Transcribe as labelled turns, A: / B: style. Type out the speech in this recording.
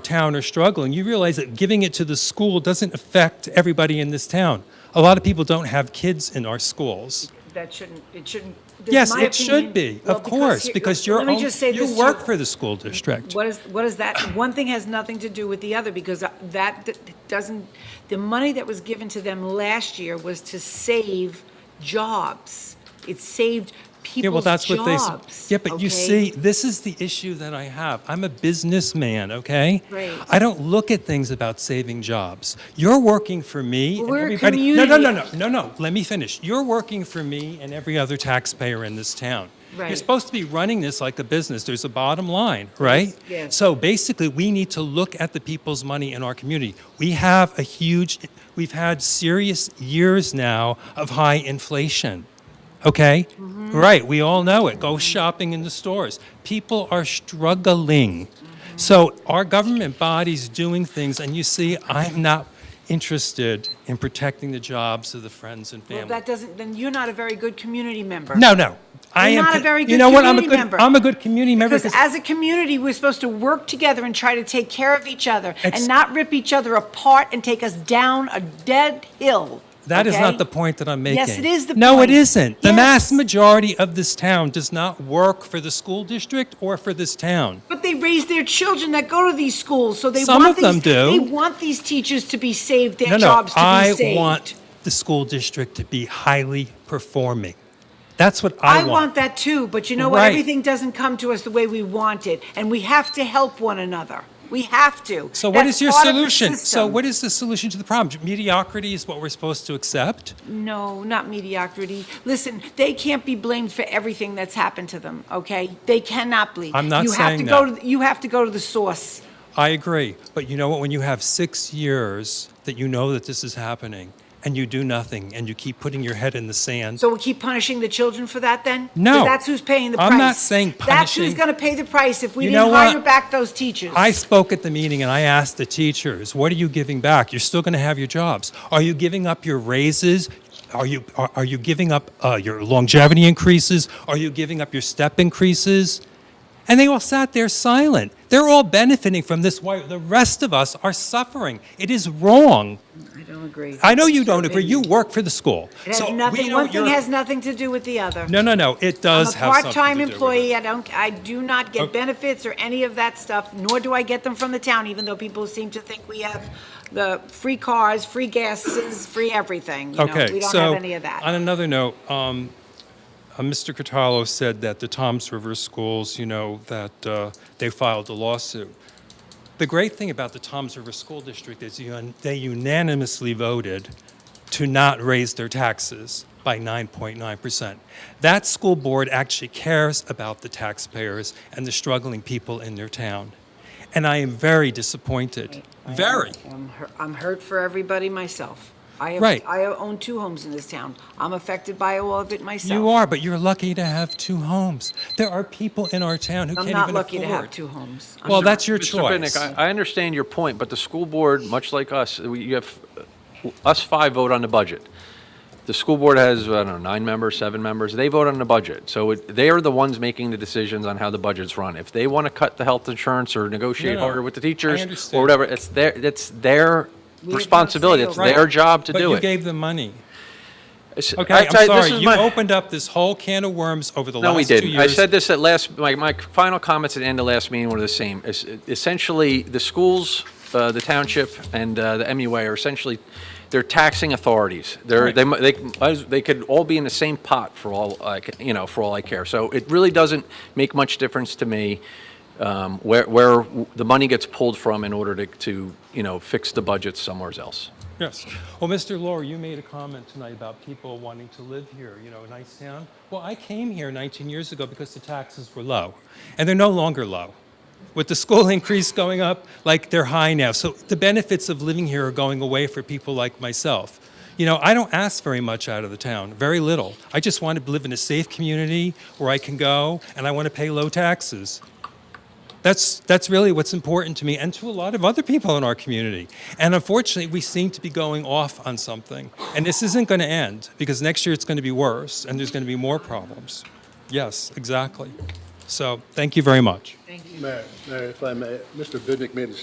A: town are struggling, you realize that giving it to the school doesn't affect everybody in this town. A lot of people don't have kids in our schools.
B: That shouldn't, it shouldn't. this is
A: Yes,
B: my
A: it should
B: opinion.
A: be,
B: Well,
A: of course,
B: here-
A: because you're,
B: let me
A: own-
B: just say this
A: you
B: too.
A: work for the school district.
B: What is, what is that? One thing has nothing to do with the other because that d- doesn't, the money that was given to them last year was to save jobs. It saved
A: Yeah, well,
B: people's
A: that's what they. s-
B: jobs.
A: Yeah, but you
B: okay?
A: see, this is the issue that I have. I'm a businessman, okay?
B: Right.
A: I don't look at things about saving jobs. You're working for me and
B: We're a
A: everybody. No, no, no, no,
B: community.
A: no, no. Let me finish. You're working for me and every other taxpayer in this town. You're
B: Right.
A: supposed to be running this like a business. There's a bottom line, right?
B: yes.
A: So basically, we need to look at the people's money in our community. We have a huge, we've had serious years now of high inflation. Okay?
B: Mm-hmm.
A: Right, we all know it. Go shopping in the stores. People are struggling. So our government body's doing things, and you see, I'm not interested in protecting the jobs of the friends and
B: Well,
A: family.
B: that doesn't, then you're not a very good community member.
A: no, no. I
B: You're
A: am
B: not a
A: co-
B: very
A: you
B: good
A: know what? I'm a
B: community
A: good
B: member.
A: I'm a good community member
B: Because as a community, we're supposed to work together and try to take care of each other
A: Ex-
B: and not rip each other apart and take us down a dead hill.
A: That is
B: okay?
A: not the point that I'm making.
B: Yes, it is the
A: no,
B: point.
A: it isn't. The mass
B: Yes.
A: majority of this town does not work for the school district or for this town.
B: But they raise their children that go to these schools, so they
A: Some
B: want
A: of them
B: these,
A: do.
B: They want these teachers to be saved, their
A: No, no,
B: jobs to
A: I
B: be saved.
A: want the school district to be highly performing. That's what
B: I
A: I want.
B: that too, but you know what?
A: Right.
B: Everything doesn't come to us the way we want it, and we have to help one another. We have to.
A: So what
B: That's
A: is your
B: part of the
A: solution? So
B: system.
A: what is the solution to the problem? Mediocrity is what we're supposed to accept?
B: No, not mediocrity. Listen, they can't be blamed for everything that's happened to them. Okay, they cannot be.
A: I'm not
B: you have to
A: saying
B: Go
A: that.
B: to, you have to go to the source.
A: I agree. But you know what? When you have six years that you know that this is happening and you do nothing and you keep putting your head in the sand,
B: So we keep punishing the children for that then? 'Cause
A: No.
B: that's who's paying the price.
A: I'm not saying
B: That's
A: punishing.
B: who's going to pay the price if we
A: You
B: didn't
A: know
B: hire
A: what?
B: back those teachers.
A: I spoke at the meeting and I asked the teachers, what are you giving back? You're still going to have your jobs. Are you giving up your raises? Are you, are, are you giving up uh, your longevity increases? Are you giving up your step increases? And they all sat there silent. They're all benefiting from this while the rest of us are suffering. It is wrong.
B: I don't agree.
A: I know you don't agree. You work for the school.
B: It has
A: So we
B: nothing,
A: know
B: one thing
A: you're-
B: has nothing to do with the other.
A: No, no, no. It does
B: I'm a
A: have something to do
B: part-time
A: with it.
B: employee. I don't, I do not get
A: Okay.
B: benefits or any of that stuff, nor do I get them from the town, even though people seem to think we have the free cars, free gases, free everything. You know,
A: Okay,
B: we don't
A: so
B: have any of that.
A: on another note, um, uh, Mr. Cataldo said that the Toms River schools, you know, that uh, they filed a lawsuit. The great thing about the Toms River School District is un- they unanimously voted to not raise their taxes by 9.9%. That school board actually cares about the taxpayers and the struggling people in their town. And I am very disappointed. Very.
B: I'm hurt, I'm hurt for everybody myself. I have,
A: Right.
B: I own two homes in this town. I'm affected by all of it myself.
A: You are, but you're lucky to have two homes. There are people in our town who
B: I'm
A: can't
B: not
A: even
B: lucky to have
A: afford.
B: two homes. I'm
A: Well,
B: not.
A: that's your
C: Mr.
A: choice.
C: Bidnick, I I understand your point, but the school board, much like us, uh, we- you have, uh, us five vote on the budget. The school board has, I don't know, nine members, seven members, they vote on the budget. So it- they are the ones making the decisions on how the budget's run. If they want to cut the health insurance or negotiate
A: No, no,
C: harder with the
A: I
C: teachers
A: understand.
C: or whatever, it's their, it's their
B: no say
C: responsibility, it's
B: over it.
C: their job to
A: but
C: do
A: you
C: it.
A: gave them money.
C: It's-
A: Okay,
C: I-
A: I, am
C: I- this
A: sorry.
C: is
A: You
C: my-
A: opened up this whole can of worms over the
C: No,
A: last
C: we
A: two
C: didn't.
A: years.
C: I said this at last, my, my final comments at the end of last meeting were the same. Es- Essentially, the schools, uh, the township, and uh, the MUA are essentially, they're taxing authorities. They're, they, mu- they, as- they could all be in the same pot for all, I ca- you know, for all I care. So it really doesn't make much difference to me um, where, where w- the money gets pulled from in order to, to, you know, fix the budget somewhere else.
A: Yes. Well, Mr. Lohr, you made a comment tonight about people wanting to live here, you know, a nice town. Well, I came here 19 years ago because the taxes were low, and they're no longer low. With the school increase going up, like they're high now. So the benefits of living here are going away for people like myself. You know, I don't ask very much out of the town, very little. I just want to live in a safe community where I can go and I want to pay low taxes. That's that's really what's important to me and to a lot of other people in our community. And unfortunately, we seem to be going off on something. And this isn't going to end because next year it's going to be worse and there's going to be more problems. Yes, exactly. So, thank you very much.
D: Mayor, Mayor, if I may, Mr. Bidnick made a